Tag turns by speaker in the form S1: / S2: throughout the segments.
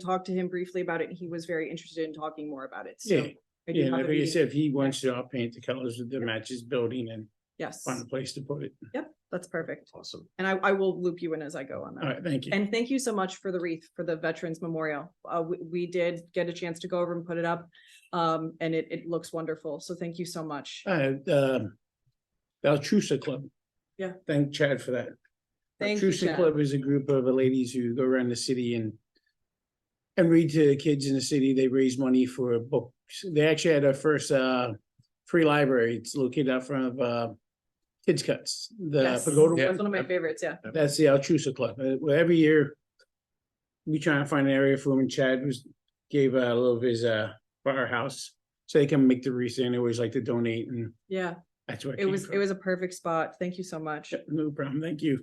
S1: talked to him briefly about it. He was very interested in talking more about it. So
S2: Yeah,
S1: I do
S2: yeah,
S1: have a
S2: like you
S1: meeting-
S2: said, if he wants to, I'll paint the colors that match his building and
S1: Yes,
S2: find a place to put it.
S1: that's perfect.
S3: Awesome.
S1: And I, I will loop you in as I go on
S2: All
S1: that.
S2: right, thank you.
S1: And thank you so much for the wreath for the Veterans Memorial. Uh, we, we did get a chance to go over and put it up. Um, and it, it looks wonderful. So thank you so much.
S2: Uh, um, the Altrusa Club.
S1: Yeah.
S2: Thank Chad for that.
S1: Thank you,
S2: Altrusa
S1: Chad.
S2: Club is a group of uh, ladies who go around the city and and read to the kids in the city. They raise money for books. They actually had our first uh free library. It's located out front of uh Kids Cuts, the
S1: Yes.
S2: pagoda
S1: That's
S2: one.
S1: one of my favorites, yeah.
S2: That's the Altrusa Club. Uh, well, every year we try and find an area for them. And Chad was gave uh, a little of his uh firehouse, so they can make the wreath. And they always like to donate, and
S1: Yeah,
S2: that's where
S1: it was, it was a perfect spot. Thank you so much.
S2: no problem. Thank you.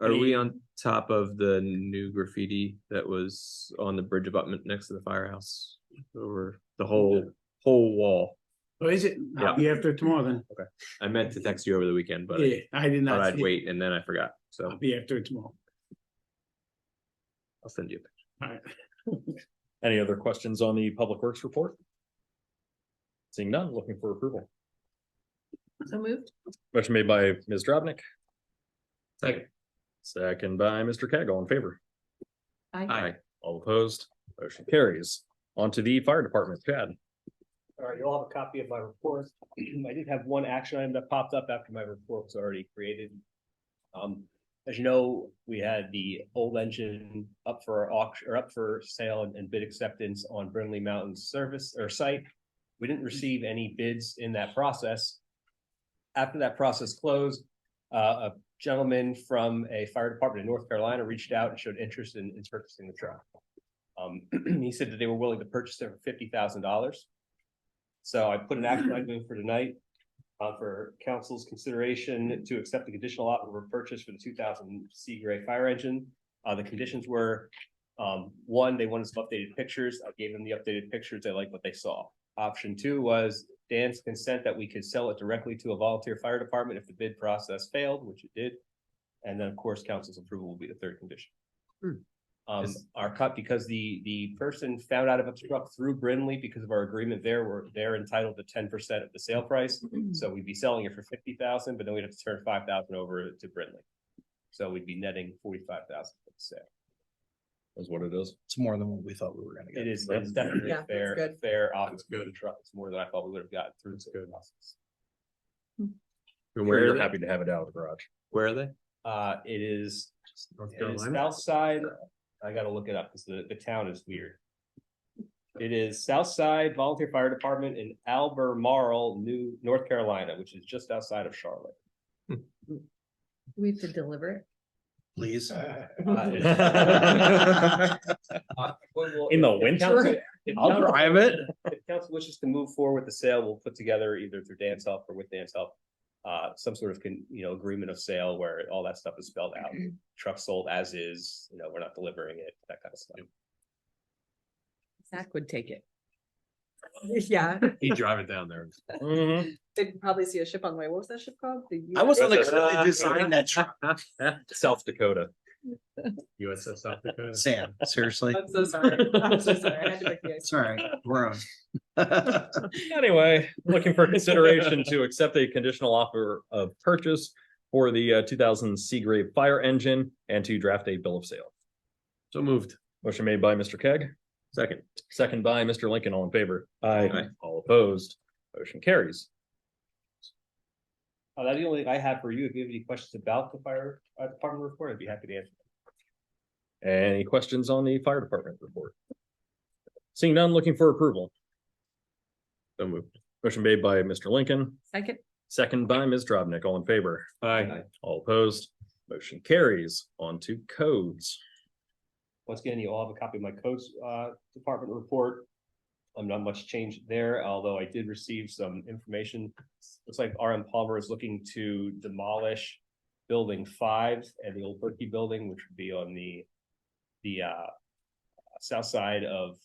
S3: Are we
S2: Any-
S3: on top of the new graffiti that was on the bridge abutment next to the firehouse? Over the whole, whole wall?
S2: Oh, is it? I'll
S3: Yeah.
S2: be after tomorrow then.
S3: I meant to text you over the weekend, but
S2: yeah,
S3: I
S2: I did
S3: thought
S2: not.
S3: I'd
S2: see it.
S3: wait and then I forgot.
S2: I'll
S3: So
S2: be after tomorrow.
S3: I'll send you. a picture.
S2: All right.
S4: Any other questions on the Public Works report? Seeing none, looking for approval.
S1: So moved?
S4: Motion made by Ms. Dropnik,
S3: Second.
S4: second by Mr. Keg, all in favor,
S3: Aye.
S4: all opposed, motion carries. On to the Fire Department, Chad.
S5: All right, you'll have a copy of my report. I did have one action item that popped up after my report was already created. Um, as you know, we had the old engine up for auction, or up for sale and- and bid acceptance on Burnley Mountain service or site. We didn't receive any bids in that process. After that process closed, uh, a gentleman from a fire department in North Carolina reached out and showed interest in, in purchasing the truck. Um, he said that they were willing to purchase it for fifty thousand dollars. So I put an action item in for tonight, uh, for council's consideration to accept the conditional offer of purchase for the two thousand C gray fire engine. Uh, the conditions were, um, one, they wanted some updated pictures. I gave them the updated pictures. They liked what they saw. Option two was Dan's consent that we could sell it directly to a volunteer fire department if the bid process failed, which it did. And then, of course, council's approval will be the third condition. Um,
S3: Yes.
S5: our cut, because the, the person found out about the truck through Brindley because of our agreement there, we're, they're entitled to ten percent of the sale price. So we'd be selling it for fifty thousand, but then we'd have to turn five thousand over to Brindley. So we'd be netting forty-five thousand for the sale.
S4: Is what it is.
S6: It's more than what we thought we were gonna
S5: It
S6: get.
S5: is, it's definitely
S1: Yeah,
S5: a
S1: that's
S5: fair, a
S1: good.
S5: fair offer for the truck. It's more than I thought we would have gotten through. the good.
S3: And where
S4: We're
S3: are they?
S4: happy to have it out of the garage.
S3: Where are they?
S5: Uh, it is,
S3: North
S5: it is south side, I gotta look it up, cause the, the town is weird. It is South Side Volunteer Fire Department in Albemarle, New, North Carolina, which is just outside of Charlotte.
S1: We have to deliver it.
S6: Please.
S5: Uh,
S4: In the winter?
S5: I'll drive
S4: it.
S5: If council wishes to move forward with the sale, we'll put together either through Dan's help or with Dan's help. Uh, some sort of can, you know, agreement of sale where all that stuff is spelled out, truck sold as is, you know, we're not delivering it, that kind of stuff.
S7: Zach would take it.
S1: Yeah,
S3: He drive it down there. Mm-hmm.
S1: they'd probably see a ship on the way. What was that ship called? The
S6: I was on the
S3: Uh,
S6: to design that truck,
S4: South Dakota.
S3: USS South Dakota.
S6: Sam, seriously.
S1: I'm so sorry. I'm so sorry. I had to make the ice.
S6: It's all right, we're on.
S4: Anyway, looking for consideration to accept a conditional offer of purchase for the uh, two thousand Seagrave fire engine and to draft a bill of sale.
S3: So moved.
S4: Motion made by Mr. Keg,
S3: Second.
S4: second by Mr. Lincoln, all in favor.
S3: Aye.
S4: All opposed, motion carries.
S5: Uh, that's the only thing I have for you. If you have any questions about the fire uh, department report, I'd be happy to answer.
S4: Any questions on the fire department report? Seeing none, looking for approval.
S3: So moved.
S4: Motion made by Mr. Lincoln,
S7: Second,
S4: second by Ms. Dropnik, all in favor.
S3: Aye.
S4: All opposed, motion carries. On to codes.
S5: Once again, you all have a copy of my codes uh department report. I'm not much change there, although I did receive some information. Looks like RM Palmer is looking to demolish building five and the old Berkey building, which would be on the the uh south side of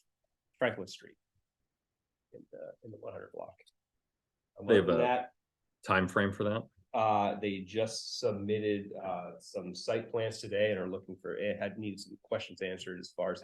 S5: Franklin Street. In the in the one hundred block. And
S4: They have
S5: other than
S4: a-
S5: that,
S4: Time frame for that?
S5: Uh, they just eh, submitted, uh, some site plans today and are looking for, it had needs some questions answered as far as